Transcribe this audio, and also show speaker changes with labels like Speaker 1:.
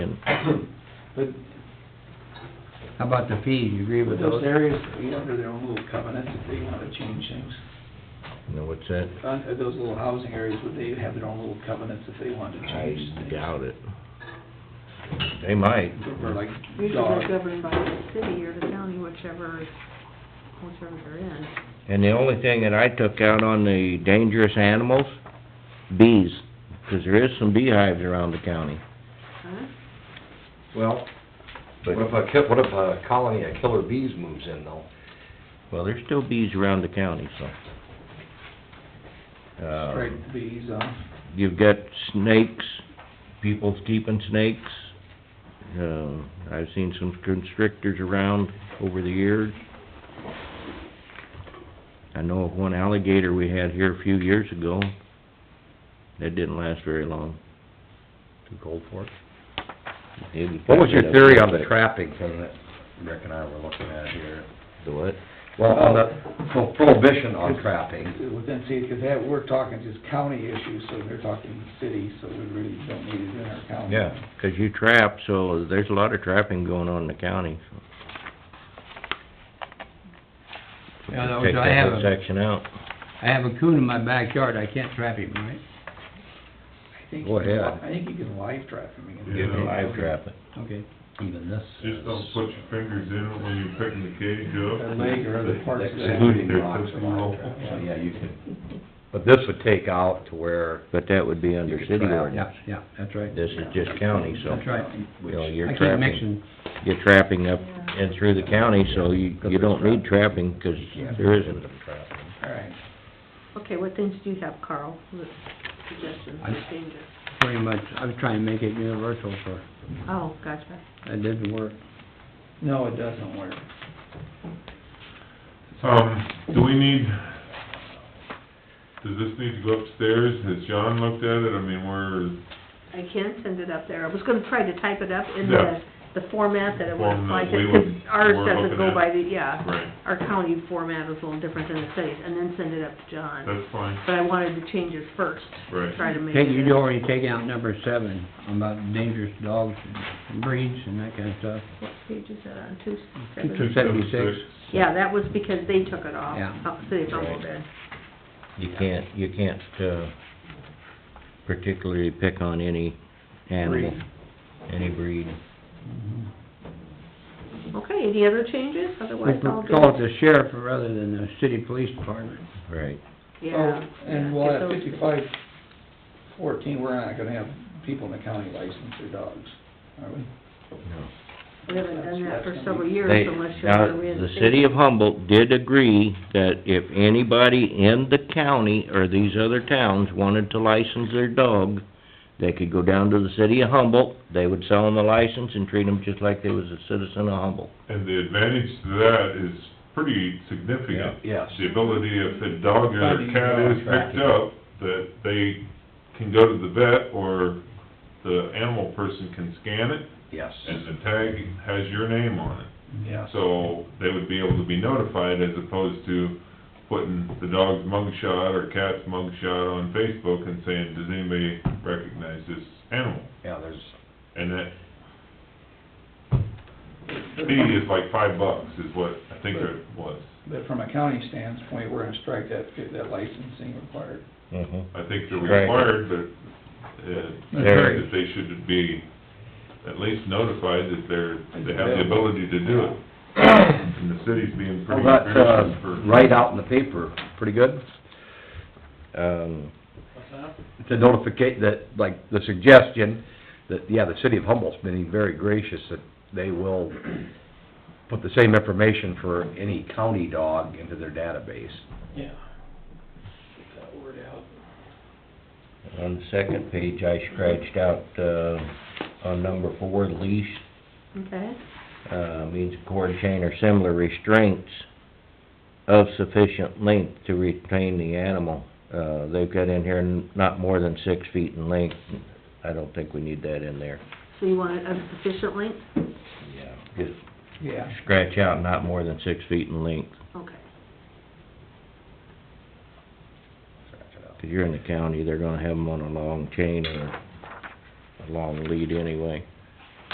Speaker 1: But
Speaker 2: How about the fees, you agree
Speaker 1: with
Speaker 2: with
Speaker 1: those
Speaker 2: those?
Speaker 1: areas, be under their own little covenants, if they wanna change things,
Speaker 3: No, what's that?
Speaker 1: Uh, those little housing areas, would they have their own little covenants if they wanted to
Speaker 3: I
Speaker 1: change things?
Speaker 3: doubt it. They might.
Speaker 1: Or like
Speaker 4: Usually they're
Speaker 1: dog,
Speaker 4: governed by the city or the county, whichever, whichever they're in.
Speaker 3: And the only thing that I took out on the dangerous animals, bees, 'cause there is some beehives around the county.
Speaker 4: Huh?
Speaker 5: Well,
Speaker 3: But,
Speaker 5: what if a, ki- what if a colony of killer bees moves in though?
Speaker 3: well, there's still bees around the county, so. Uh,
Speaker 1: strike bees, um,
Speaker 3: You've got snakes, people keeping snakes. Uh, I've seen some constrictors around over the years. I know of one alligator we had here a few years ago. That didn't last very long.
Speaker 6: Too cold for it?
Speaker 3: It
Speaker 6: What was your
Speaker 3: packed it up
Speaker 6: theory on
Speaker 3: pretty
Speaker 6: the
Speaker 3: quick.
Speaker 6: trapping thing that Rick and I were looking at here?
Speaker 3: The what?
Speaker 6: Well, uh, on the pro- prohibition on trapping.
Speaker 1: within city, cause that, we're talking just county issues, so they're talking city, so we really don't need it in our county.
Speaker 3: Yeah, 'cause you trap, so there's a lot of trapping going on in the county, so.
Speaker 2: Yeah, that was-
Speaker 3: Take
Speaker 2: I
Speaker 3: that
Speaker 2: have
Speaker 3: whole
Speaker 2: a-
Speaker 3: Section out.
Speaker 2: I have a coon in my backyard, I can't trap him, right?
Speaker 1: I think
Speaker 6: Go
Speaker 1: you can li-
Speaker 6: ahead.
Speaker 1: I think you can live trap them. you can-
Speaker 7: You can live
Speaker 3: trap it.
Speaker 2: Okay.
Speaker 6: Even this
Speaker 7: Just don't
Speaker 6: is-
Speaker 7: put your fingers in it when you're picking the cage up.
Speaker 1: Their leg or other parts of that.
Speaker 6: Including
Speaker 7: They're
Speaker 6: rocks
Speaker 7: just
Speaker 6: and
Speaker 7: little-
Speaker 6: So, yeah, you could, but this would take out to where,
Speaker 3: But that would be under
Speaker 6: You could
Speaker 3: city
Speaker 6: trap.
Speaker 3: ordinance.
Speaker 2: Yeah, yeah, that's right.
Speaker 3: This is just county, so.
Speaker 2: That's right.
Speaker 3: You know,
Speaker 2: I
Speaker 3: you're
Speaker 2: keep
Speaker 3: trapping,
Speaker 2: mixing,
Speaker 3: you're trapping up and through the county, so you, you don't need trapping, 'cause there isn't.
Speaker 1: Alright,
Speaker 4: Okay, what things do you have, Carl, with suggestions for
Speaker 2: I-
Speaker 4: changes?
Speaker 2: pretty much, I was trying to make it universal for,
Speaker 4: Oh, gotcha.
Speaker 2: it didn't work.
Speaker 1: no, it doesn't work.
Speaker 7: Um, do we need, does this need to go upstairs? Has John looked at it? I mean, we're,
Speaker 4: I can send it up there. I was gonna try to type it up in
Speaker 7: Yeah.
Speaker 4: the, the format that it would apply
Speaker 7: Format
Speaker 4: to,
Speaker 7: we
Speaker 4: because
Speaker 7: would-
Speaker 4: ours
Speaker 7: we're
Speaker 4: doesn't
Speaker 7: looking
Speaker 4: go
Speaker 7: at.
Speaker 4: by the, yeah.
Speaker 7: right,
Speaker 4: Our county format is a little different than the city's, and then send it up to John.
Speaker 7: that's fine,
Speaker 4: But I wanted the changes first,
Speaker 7: right.
Speaker 4: try to make
Speaker 2: Take,
Speaker 4: it.
Speaker 2: you'd already taken out number seven, about dangerous dogs and breeds and that kind of stuff.
Speaker 4: What page is that on, two,
Speaker 2: Two
Speaker 4: seven?
Speaker 2: seventy-six.
Speaker 4: Yeah, that was because they took it off,
Speaker 2: Yeah.
Speaker 4: uh, City of Humboldt
Speaker 3: Right.
Speaker 4: did.
Speaker 3: You can't, you can't, uh, particularly pick on any animal,
Speaker 1: Breed.
Speaker 3: any breed.
Speaker 1: Mm-hmm.
Speaker 2: Mhm.
Speaker 4: Okay, any other changes?
Speaker 2: We
Speaker 4: Otherwise, I'll
Speaker 2: could
Speaker 4: do.
Speaker 2: call it the sheriff rather than the city police department.
Speaker 3: Right.
Speaker 4: Yeah.
Speaker 1: Oh, And
Speaker 4: yeah,
Speaker 1: we'll
Speaker 4: get
Speaker 1: have
Speaker 4: those-
Speaker 1: fifty-five fourteen, we're not gonna have people in the county license their dogs, are we?
Speaker 3: No.
Speaker 4: We haven't done that for
Speaker 1: That's- that's
Speaker 4: several
Speaker 1: gonna be-
Speaker 4: years
Speaker 3: They,
Speaker 4: unless you're
Speaker 3: now,
Speaker 4: gonna
Speaker 3: the
Speaker 4: reinstate
Speaker 3: city
Speaker 4: it.
Speaker 3: of Humboldt did agree that if anybody in the county or these other towns wanted to license their dog, they could go down to the city of Humboldt, they would sell them a license and treat them just like they was a citizen of Humboldt.
Speaker 7: And the advantage to that is pretty significant.
Speaker 6: yes.
Speaker 7: The ability if a dog or a cat is picked up, that they can go to the vet or the animal person can scan it
Speaker 6: Yes.
Speaker 7: and the tag has your name on it.
Speaker 1: Yeah.
Speaker 7: So they would be able to be notified as opposed to putting the dog's mug shot or cat's mug shot on Facebook and saying, does anybody recognize this animal?
Speaker 6: Yeah, there's,
Speaker 7: And that fee is like five bucks is what I think it was.
Speaker 1: But from a county standpoint, we're gonna strike that, that licensing required.
Speaker 3: Mm-hmm.
Speaker 7: I think they're
Speaker 3: Right.
Speaker 7: required, but, uh, I
Speaker 3: There.
Speaker 7: think that they should be at least notified that they're, they have the
Speaker 1: Available.
Speaker 7: ability to do it. And the city's being
Speaker 6: well,
Speaker 7: pretty
Speaker 6: that's,
Speaker 7: gracious
Speaker 6: uh,
Speaker 7: for.
Speaker 6: right out in the paper, pretty good.
Speaker 3: Um,
Speaker 6: The notification, that, like, the suggestion that, yeah, the city of Humboldt's been very gracious that they will put the same information for any county dog into their database.
Speaker 1: Yeah. Get that word out.
Speaker 3: on the second page, I scratched out, uh, on number four, leash,
Speaker 4: Okay,
Speaker 3: uh, means a cord chain or similar restraints of sufficient length to retain the animal. Uh, they've got in here n- not more than six feet in length. I don't think we need that in there.
Speaker 4: so you want it of sufficient length?
Speaker 3: Yeah. Just
Speaker 1: Yeah,
Speaker 3: scratch out not more than six feet in length,
Speaker 4: Okay.
Speaker 3: because you're in the county, they're gonna have them on a long chain or a long lead anyway.